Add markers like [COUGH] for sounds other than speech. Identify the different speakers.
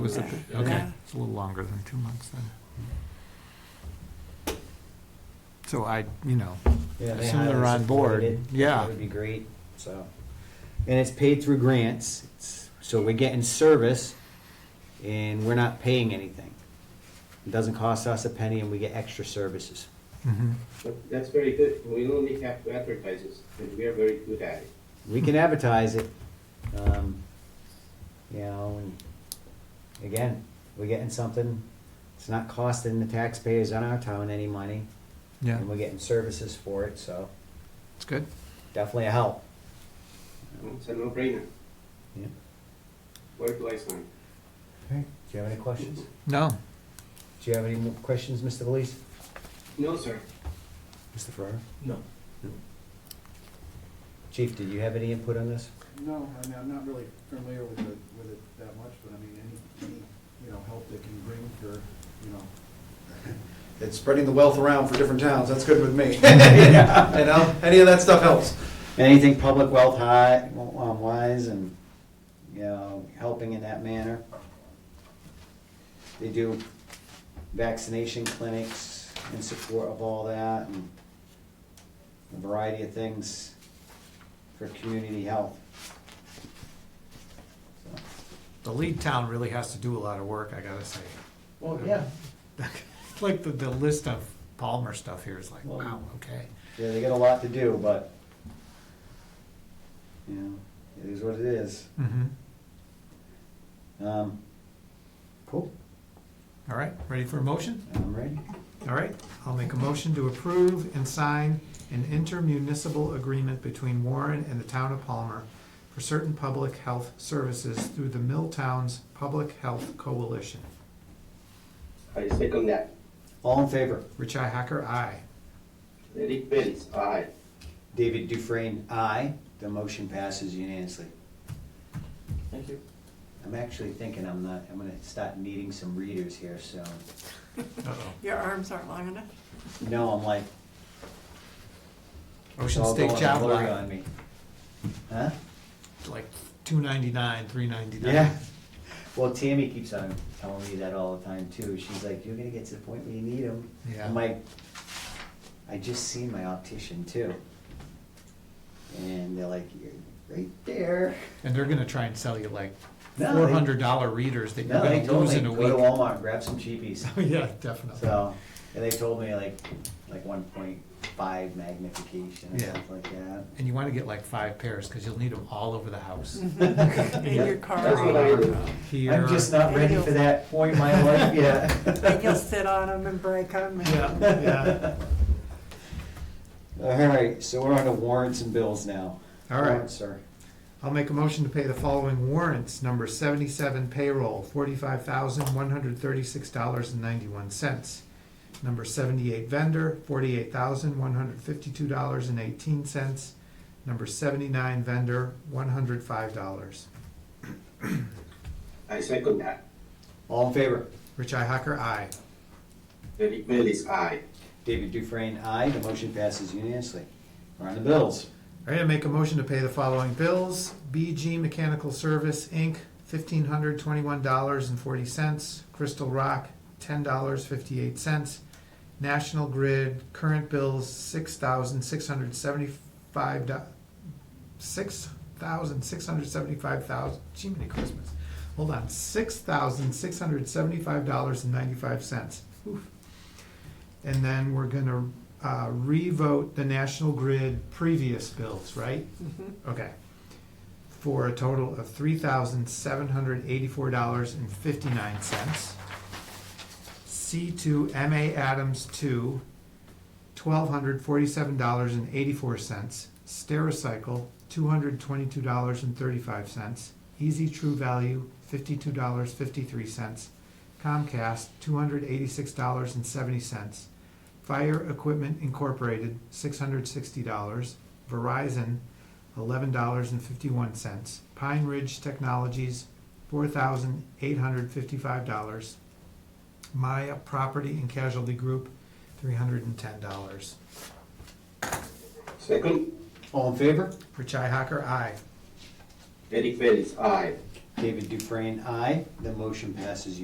Speaker 1: Was it,
Speaker 2: Yeah.
Speaker 1: okay,
Speaker 2: Yeah.
Speaker 1: it's a little longer than two months then. So I, you know,
Speaker 3: Yeah, they
Speaker 1: Assume they're
Speaker 3: highly
Speaker 1: on
Speaker 3: supported
Speaker 1: board.
Speaker 3: it.
Speaker 1: Yeah.
Speaker 3: That would be great, so. And it's paid through grants, it's, so we're getting service and we're not paying anything. It doesn't cost us a penny and we get extra services.
Speaker 1: mhm.
Speaker 4: But That's very good. We only have to advertise this, and we are very good at it.
Speaker 3: We can advertise it, um, you know, and again, we're getting something, it's not costing the taxpayers on our town any money.
Speaker 1: yeah,
Speaker 3: And we're getting services for it, so
Speaker 1: it's good.
Speaker 3: definitely a help.
Speaker 4: It's a no-brainer.
Speaker 3: Yeah.
Speaker 4: Where do I sign?
Speaker 3: Okay. Do you have any questions?
Speaker 1: No,
Speaker 3: Do you have any more questions, Mr. Belize?
Speaker 4: No, sir.
Speaker 3: Mr. Ferrara?
Speaker 4: No.
Speaker 3: Chief, did you have any input on this?
Speaker 5: No, I mean, I'm not really familiar with it, with it that much, but I mean, any, any, you know, help they can bring for, you know, [LAUGHS] it's spreading the wealth around for different towns, that's good with me. [LAUGHS] You know, any of that stuff helps.
Speaker 3: Anything public wealth high, um, wise and, you know, helping in that manner. They do vaccination clinics in support of all that and a variety of things for community health.
Speaker 1: the lead town really has to do a lot of work, I gotta say. [LAUGHS]
Speaker 3: Well,
Speaker 1: yeah. Like the, the list of Palmer stuff here is like,
Speaker 3: Well-
Speaker 1: wow, okay.
Speaker 3: Yeah, they got a lot to do, but, you know, it is what it is.
Speaker 1: Mhm.
Speaker 3: Um, cool,
Speaker 1: All right, ready for a motion?
Speaker 3: I'm ready.
Speaker 1: All right, I'll make a motion to approve and sign an intermunicipal agreement between Warren and the town of Palmer for certain public health services through the Milltowns Public Health Coalition.
Speaker 4: I second that.
Speaker 3: All in favor?
Speaker 1: Rich I. Hacker, aye.
Speaker 4: Eric Bellis, aye.
Speaker 3: David Dufresne, aye. The motion passes unanimously.
Speaker 4: Thank you.
Speaker 3: I'm actually thinking I'm not, I'm gonna start needing some readers here, so,
Speaker 1: Uh-oh.
Speaker 2: Your arms aren't long enough.
Speaker 4: [LAUGHS]
Speaker 3: no, I'm like, it's
Speaker 1: Ocean
Speaker 3: all
Speaker 1: State
Speaker 3: going
Speaker 1: Job
Speaker 3: blurry
Speaker 1: Lot,
Speaker 3: on me. Huh?
Speaker 1: like two ninety-nine, three ninety-nine.
Speaker 3: Yeah. Well, Tammy keeps on telling me that all the time too. She's like, you're gonna get to the point where you need them.
Speaker 1: Yeah.
Speaker 3: I'm like, I just seen my optician too. And they're like, you're right there.
Speaker 1: And they're gonna try and sell you like
Speaker 3: No, they-
Speaker 1: four hundred dollar readers that you're
Speaker 3: No, they
Speaker 1: gonna
Speaker 3: told
Speaker 1: lose
Speaker 3: me,
Speaker 1: in a
Speaker 3: go
Speaker 1: week.
Speaker 3: to Walmart, grab some
Speaker 1: [LAUGHS]
Speaker 3: cheapies.
Speaker 1: Yeah, definitely.
Speaker 3: So, and they told me like, like one point five magnification or
Speaker 1: Yeah.
Speaker 3: something like that.
Speaker 1: And you wanna get like five pairs, cause you'll need them all over the house.
Speaker 2: In your car.
Speaker 4: That's what I do.
Speaker 1: Here.
Speaker 3: Mm-hmm. I'm just not ready for that point in my life
Speaker 2: And you'll
Speaker 3: yet. [LAUGHS]
Speaker 2: sit on them and break them.
Speaker 1: Yeah, [LAUGHS] yeah.
Speaker 3: All right, so we're on to warrants and bills now.
Speaker 1: All right.
Speaker 3: Warrants, Sir.
Speaker 1: I'll make a motion to pay the following warrants. Number seventy-seven payroll, forty-five thousand, one hundred thirty-six dollars and ninety-one cents. Number seventy-eight vendor, forty-eight thousand, one hundred fifty-two dollars and eighteen cents. Number seventy-nine vendor, one hundred five dollars.
Speaker 4: I second that.
Speaker 3: All in favor?
Speaker 1: Rich I. Hacker, aye.
Speaker 4: Eric Bellis, aye.
Speaker 3: David Dufresne, aye. The motion passes unanimously. We're on the bills.
Speaker 1: All right, I make a motion to pay the following bills. BG Mechanical Service, Inc., fifteen hundred twenty-one dollars and forty cents. Crystal Rock, ten dollars fifty-eight cents. National Grid, current bills, six thousand six hundred seventy-five six thousand six hundred seventy-five thousand, gee, many Christmas. Hold on, six thousand six hundred seventy-five dollars and ninety-five cents. And then we're gonna uh, revote the National Grid previous bills, right?
Speaker 2: Mhm.
Speaker 1: Okay. For a total of three thousand seven hundred eighty-four dollars and fifty-nine cents. C two MA Adams two, twelve hundred forty-seven dollars and eighty-four cents. Stericycle, two hundred twenty-two dollars and thirty-five cents. Easy True Value, fifty-two dollars fifty-three cents. Comcast, two hundred eighty-six dollars and seventy cents. Fire Equipment Incorporated, six hundred sixty dollars. Verizon, eleven dollars and fifty-one cents. Pine Ridge Technologies, four thousand eight hundred fifty-five dollars. Maya Property and Casualty Group, three hundred and ten dollars.
Speaker 4: Second,
Speaker 3: All in favor?
Speaker 1: Richi Hacker, aye.
Speaker 4: Eric Bellis, aye.
Speaker 3: David Dufresne, aye. The motion passes